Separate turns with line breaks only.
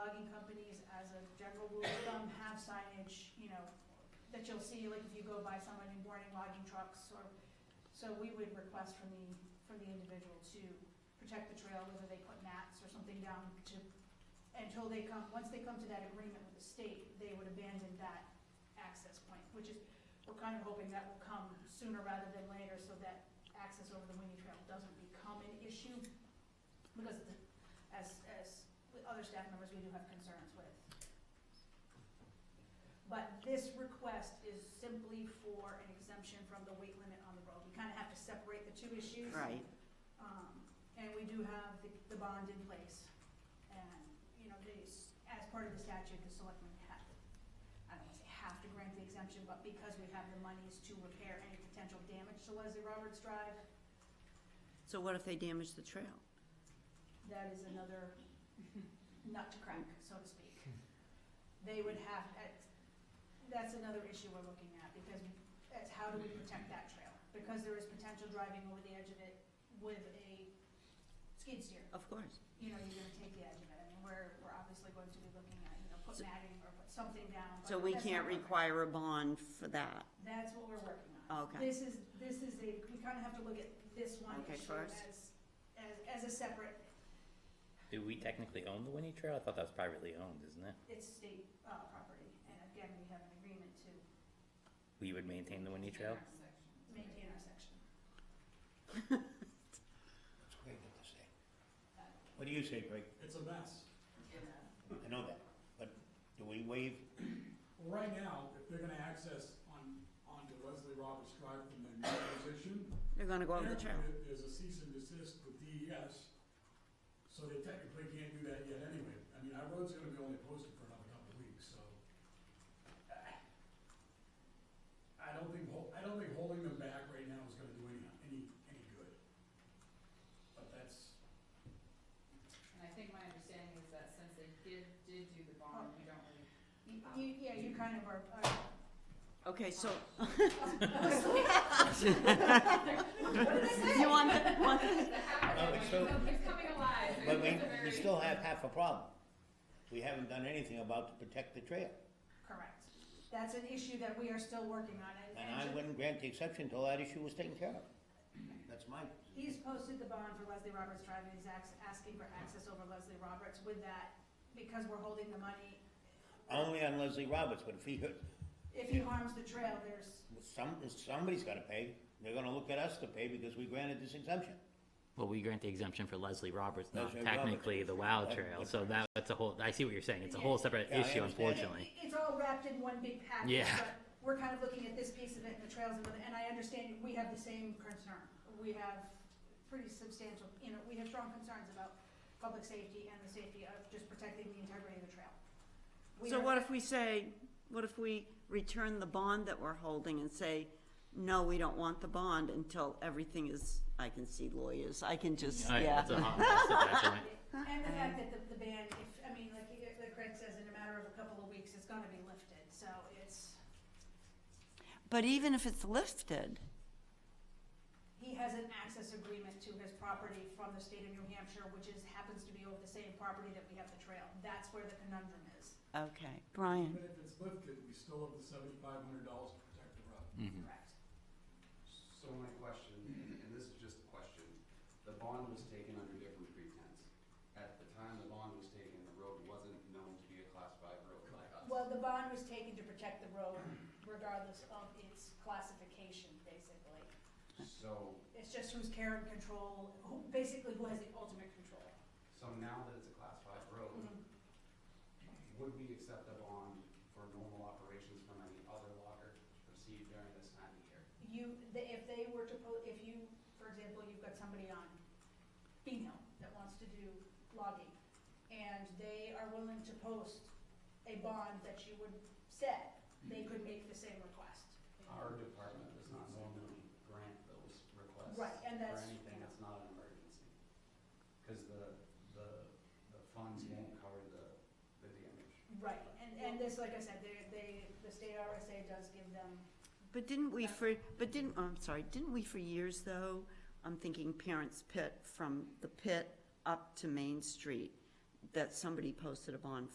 signage, you know, that you'll see, like if you go by someone in warning logging trucks or, so we would request from the, from the individual to protect the trail, whether they put mats or something down to, until they come, once they come to that agreement with the state, they would abandon that access point, which is, we're kind of hoping that will come sooner rather than later so that access over the Winnie Trail doesn't become an issue. Because the- as, as with other staff members, we do have concerns with. But this request is simply for an exemption from the weight limit on the road. We kind of have to separate the two issues.
Right.
Um, And we do have the the bond in place. And, you know, these, as part of the statute, the selectmen have, I don't want to say have to grant the exemption, but because we have the monies to repair any potential damage to Leslie Roberts Drive,
So what if they damage the trail?
that is another nut to crack, so to speak. They would have, that's- that's another issue we're looking at, because that's how do we protect that trail? Because there is potential driving over the edge of it with a skid steer.
Of course.
you know, you're gonna take the edge of it. I mean, we're, we're obviously going to be looking at, you know, put
So-
matting or put something down. but
So we
that's not
can't
what we're-
require a bond for that?
That's what we're working on.
Oh, Okay.
This is, this is a, we kind of have to look at this one
Okay,
issue
first.
as, as, as a separate,
Do we technically own the Winnie Trail? I thought that was privately owned, isn't it?
it's state, uh, property. And again, we have an agreement to
We would maintain the Winnie Trail?
maintain our section.
It's great what they say. What do you say, Greg?
It's a mess.
I know that, but do we waive,
Well, Right now, if they're gonna access on, onto Leslie Roberts Drive from their new position.
They're gonna go over the trail?
apparently there- There's a cease and desist with DES, so they technically can't do that yet anyway. I mean, our road's gonna be only posted for another couple of weeks, so. eh, I don't think, hol- I don't think holding them back right now is gonna do any, any, any good. But that's,
And I think my understanding is that since they did, did do the bond, we don't really.
You, you- yeah, you kind of are, uh, are-
Okay, so,
You
want
the, want the.
No, it's still-
It's coming alive.
but we,
It's a
we
very-
still have half a problem. We haven't done anything about to protect the trail.
correct. That's an issue that we are still working on.
And I wouldn't grant the exception until that issue was taken care of. That's my,
He's posted the bond for Leslie Roberts Drive, and he's ax- asking for access over Leslie Roberts with that, because we're holding the money.
only on Leslie Roberts, but if he, hurt-
If he harms the trail, there's,
some, somebody's gotta pay. They're gonna look at us to pay because we granted this exemption.
Well, we grant the exemption for Leslie Roberts, not
Leslie
technically the
Roberts.
WOW
That-
Trail,
that's
so that, that's a whole, I see what you're saying, it's a whole separate
Yeah, I
issue,
understand.
unfortunately.
it's all wrapped in one big package,
Yeah.
but we're kind of looking at this piece of it and the trails, and and I understand we have the same concern. We have pretty substantial, you know, we have strong concerns about public safety and the safety of just protecting the integrity of the trail. We
so
are-
what if we say, what if we return the bond that we're holding and say, no, we don't want the bond until everything is, I can see lawyers, I can just,
All right, that's a
yeah.
hot mess at that point.
And the fact that the, the ban, if, I mean, like, like Craig says, in a matter of a couple of weeks, it's gonna be lifted, so it's,
But even if it's lifted,
he has an access agreement to his property from the state of New Hampshire, which is, happens to be over the same property that we have the trail. That's where the conundrum is.
okay, Brian?
even if it's lifted, we still have the seventy-five hundred dollars to protect the road.
Correct.
So my question, and this is just a question, the bond was taken under different pretense. At the time the bond was taken, the road wasn't known to be a class five road by us.
Well, the bond was taken to protect the road regardless of its classification, basically.
So,
It's just who's care and control, who, basically who has the ultimate control.
so now that it's a class five road,
Mm-hmm.
would we accept a bond for normal operations from any other locker received during this time of year?
You, the- if they were to, po- if you, for example, you've got somebody on Bean Hill that wants to do logging, and they are willing to post a bond that you would set, they could make the same request.
Our department does not normally grant those requests.
Right, and that's-
For anything that's not an emergency. Because the, the, the funds won't cover the, the damage.
Right, and, and this, like I said, they, they, the state RSA does give them,
But didn't we for, but didn't, oh, I'm sorry, didn't we for years though, I'm thinking Parents Pit, from the pit up to Main Street, that somebody posted a bond